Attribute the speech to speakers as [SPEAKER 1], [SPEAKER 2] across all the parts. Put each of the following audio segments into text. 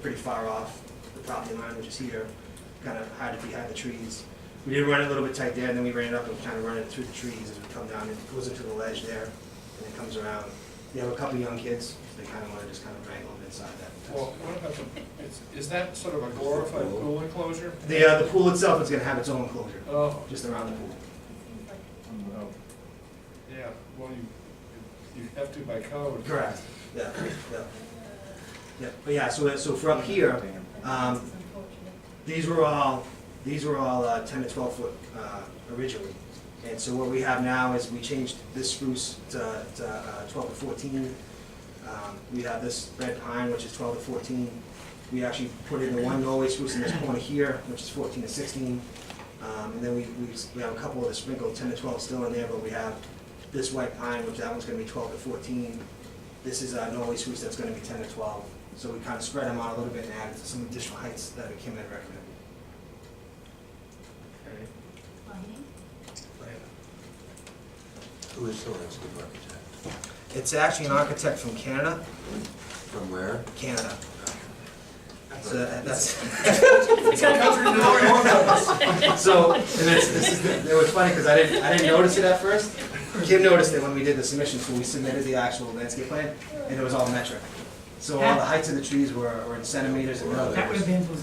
[SPEAKER 1] pretty far off the property line, which is here, kind of hide it behind the trees. We did run it a little bit tight there, and then we ran it up and kind of run it through the trees as we come down. It goes into the ledge there, and it comes around. We have a couple young kids, so they kind of want to just kind of wrangle them inside that.
[SPEAKER 2] Well, what about the, is, is that sort of a glorified pool enclosure?
[SPEAKER 1] The, uh, the pool itself is gonna have its own enclosure,
[SPEAKER 2] Oh,
[SPEAKER 1] just around the pool.
[SPEAKER 2] no. Yeah, well, you, you have to by code.
[SPEAKER 1] Correct. Yeah, yeah. Yeah, but yeah, so, so for up here, um, these were all, these were all uh, ten to twelve foot, uh, originally. And so what we have now is we changed this spruce to, to uh, twelve to fourteen. Um, we have this red pine, which is twelve to fourteen. We actually put in the one Norway spruce in this corner here, which is fourteen to sixteen. Um, and then we, we, we have a couple of the sprinkled ten to twelve still in there, but we have this white pine, which that one's gonna be twelve to fourteen. This is uh, Norway spruce that's gonna be ten to twelve. So we kind of spread them out a little bit and added some additional heights that Kim had recommended.
[SPEAKER 2] Okay.
[SPEAKER 3] Who is the landscape architect?
[SPEAKER 1] It's actually an architect from Canada,
[SPEAKER 3] From where?
[SPEAKER 1] Canada. That's, uh, that's, so, and it's, this is, the- it was funny, because I didn't, I didn't notice it at first. Kim noticed it when we did the submission, so we submitted the actual landscape plan, and it was all metric. So all the heights of the trees were, were in centimeters and
[SPEAKER 4] That would
[SPEAKER 1] millimeters.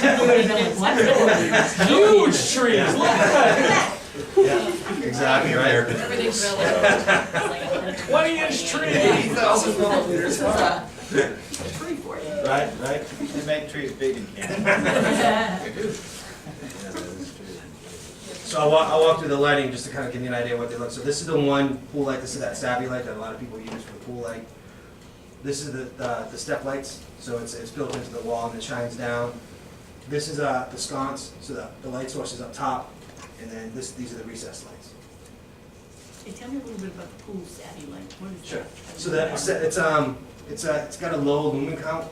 [SPEAKER 4] have been. was a-
[SPEAKER 2] Millimeters.
[SPEAKER 4] Huge tree.
[SPEAKER 1] Yeah. Yeah, Exactly, right?
[SPEAKER 5] Everything's
[SPEAKER 4] relative. Twenty inch tree.
[SPEAKER 1] Eighty thousand millimeters. Right,
[SPEAKER 5] Free for you.
[SPEAKER 1] right?
[SPEAKER 6] They make trees big in Canada.
[SPEAKER 3] Yeah, that is true.
[SPEAKER 1] So I walk, I walk through the lighting just to kind of give you an idea of what they look. So this is the one pool light, this is that savvy light that a lot of people use for the pool light. This is the, the, the step lights, so it's, it's built into the wall and it shines down. This is, uh, the sconce, so the, the light source is up top, and then this, these are the recessed lights.
[SPEAKER 5] Hey, tell me a little bit about the pool savvy, like, what is that?
[SPEAKER 1] So that, it's, it's, um, it's, uh, it's got a low lumen count.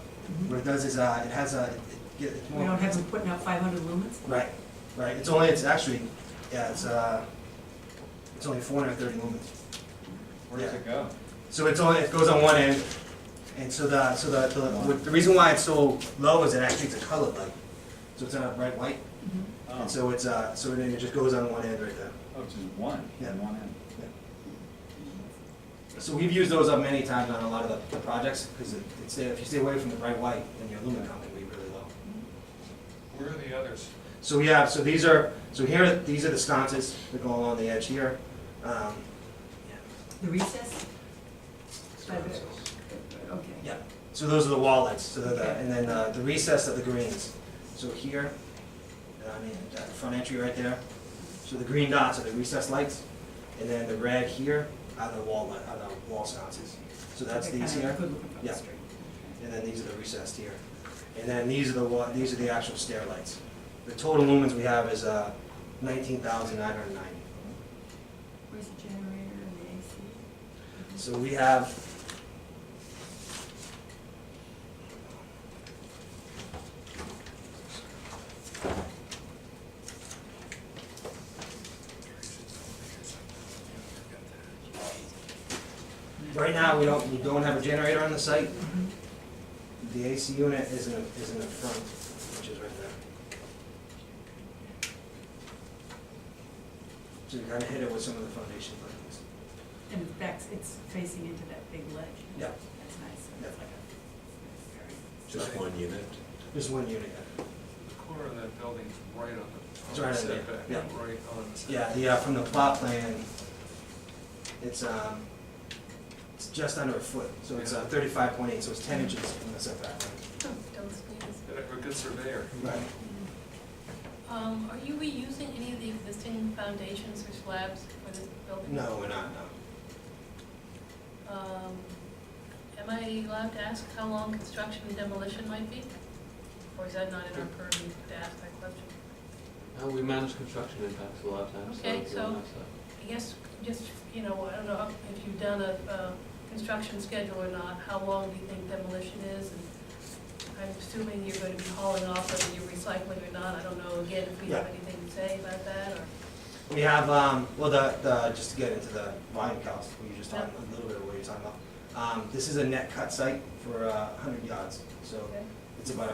[SPEAKER 1] What it does is, uh, it has a, it get- it's
[SPEAKER 4] We
[SPEAKER 1] more.
[SPEAKER 4] don't have them putting out five hundred lumens?
[SPEAKER 1] Right, right, it's only, it's actually, yeah, it's, uh, it's only four hundred and thirty lumens.
[SPEAKER 2] Where does it go?
[SPEAKER 1] So it's only, it goes on one end, and so the, so the, the, with- the reason why it's so low is it actually it's a colored light. So it's not a bright white,
[SPEAKER 6] Oh,
[SPEAKER 1] and
[SPEAKER 6] it's
[SPEAKER 1] so it's, uh, so then it just goes on one end right there.
[SPEAKER 6] just one,
[SPEAKER 1] Yeah.
[SPEAKER 6] one end.
[SPEAKER 1] So we've used those up many times on a lot of the, the projects, because it, it's, if you stay away from the bright white, then your lumen count can be really low.
[SPEAKER 2] Where are the others?
[SPEAKER 1] So we have, so these are, so here, these are the sconces that go along the edge here. Um,
[SPEAKER 4] The recess? By the- Okay.
[SPEAKER 1] Yeah, so those are the wall lights, so the- the,
[SPEAKER 4] Okay.
[SPEAKER 1] and then uh, the recess of the greens. So here, I mean, that front entry right there, so the green dots are the recess lights, and then the red here are the wall, li- are the wall sconces. So that's
[SPEAKER 4] Okay,
[SPEAKER 1] these
[SPEAKER 4] kinda
[SPEAKER 1] here,
[SPEAKER 4] Good looking from
[SPEAKER 1] Yeah.
[SPEAKER 4] the street.
[SPEAKER 1] and then these are the recessed here. And then these are the, wa- these are the actual stair lights. The total lumens we have is uh, nineteen thousand nine hundred ninety.
[SPEAKER 5] Where's the generator and the AC?
[SPEAKER 1] So we have. Right now, we don't, we don't have a generator on the site.
[SPEAKER 4] Mm-hmm.
[SPEAKER 1] The AC unit is in, the- is in the front, which is right there. So you kinda hit it with some of the foundation buttons.
[SPEAKER 4] And it backs, it's facing into that big ledge.
[SPEAKER 1] Yeah.
[SPEAKER 4] That's nice. So it's
[SPEAKER 1] Yeah.
[SPEAKER 4] like a- very-
[SPEAKER 3] Just one unit?
[SPEAKER 1] There's one unit.
[SPEAKER 2] The corner of that building's right on
[SPEAKER 1] It's
[SPEAKER 2] the, on
[SPEAKER 1] right
[SPEAKER 2] the
[SPEAKER 1] on there,
[SPEAKER 2] setback,
[SPEAKER 1] yeah.
[SPEAKER 2] right on the
[SPEAKER 1] Yeah,
[SPEAKER 2] setback.
[SPEAKER 1] the, uh, from the plot plan, it's, um, it's just under a foot, so it's uh, thirty-five point eight, so it's ten inches from the setback.
[SPEAKER 2] Yeah. A good surveyor.
[SPEAKER 1] Right.
[SPEAKER 5] Mm-hmm.
[SPEAKER 7] Um, are you reusing any of the existing foundations or slabs for this building?
[SPEAKER 1] No, we're not, no.
[SPEAKER 7] Um, am I allowed to ask how long construction and demolition might be? Or is that not in our purview to ask that question?
[SPEAKER 8] Uh, we manage construction impacts a lot of times.
[SPEAKER 7] Okay,
[SPEAKER 8] if you want that.
[SPEAKER 7] I guess, just, you know, I don't know if you've done a, uh construction schedule or not, how long do you think demolition is? And I'm assuming you're gonna be hauling off whether you're recycling or not, I don't know, again, if we have
[SPEAKER 1] Yeah.
[SPEAKER 7] anything to say about that, or?
[SPEAKER 1] We have, um, well, the, the, just to get into the volume counts, we were just talking, a little bit of what you're talking about. Um, this is a net cut site for, uh, hundred yards, so It's about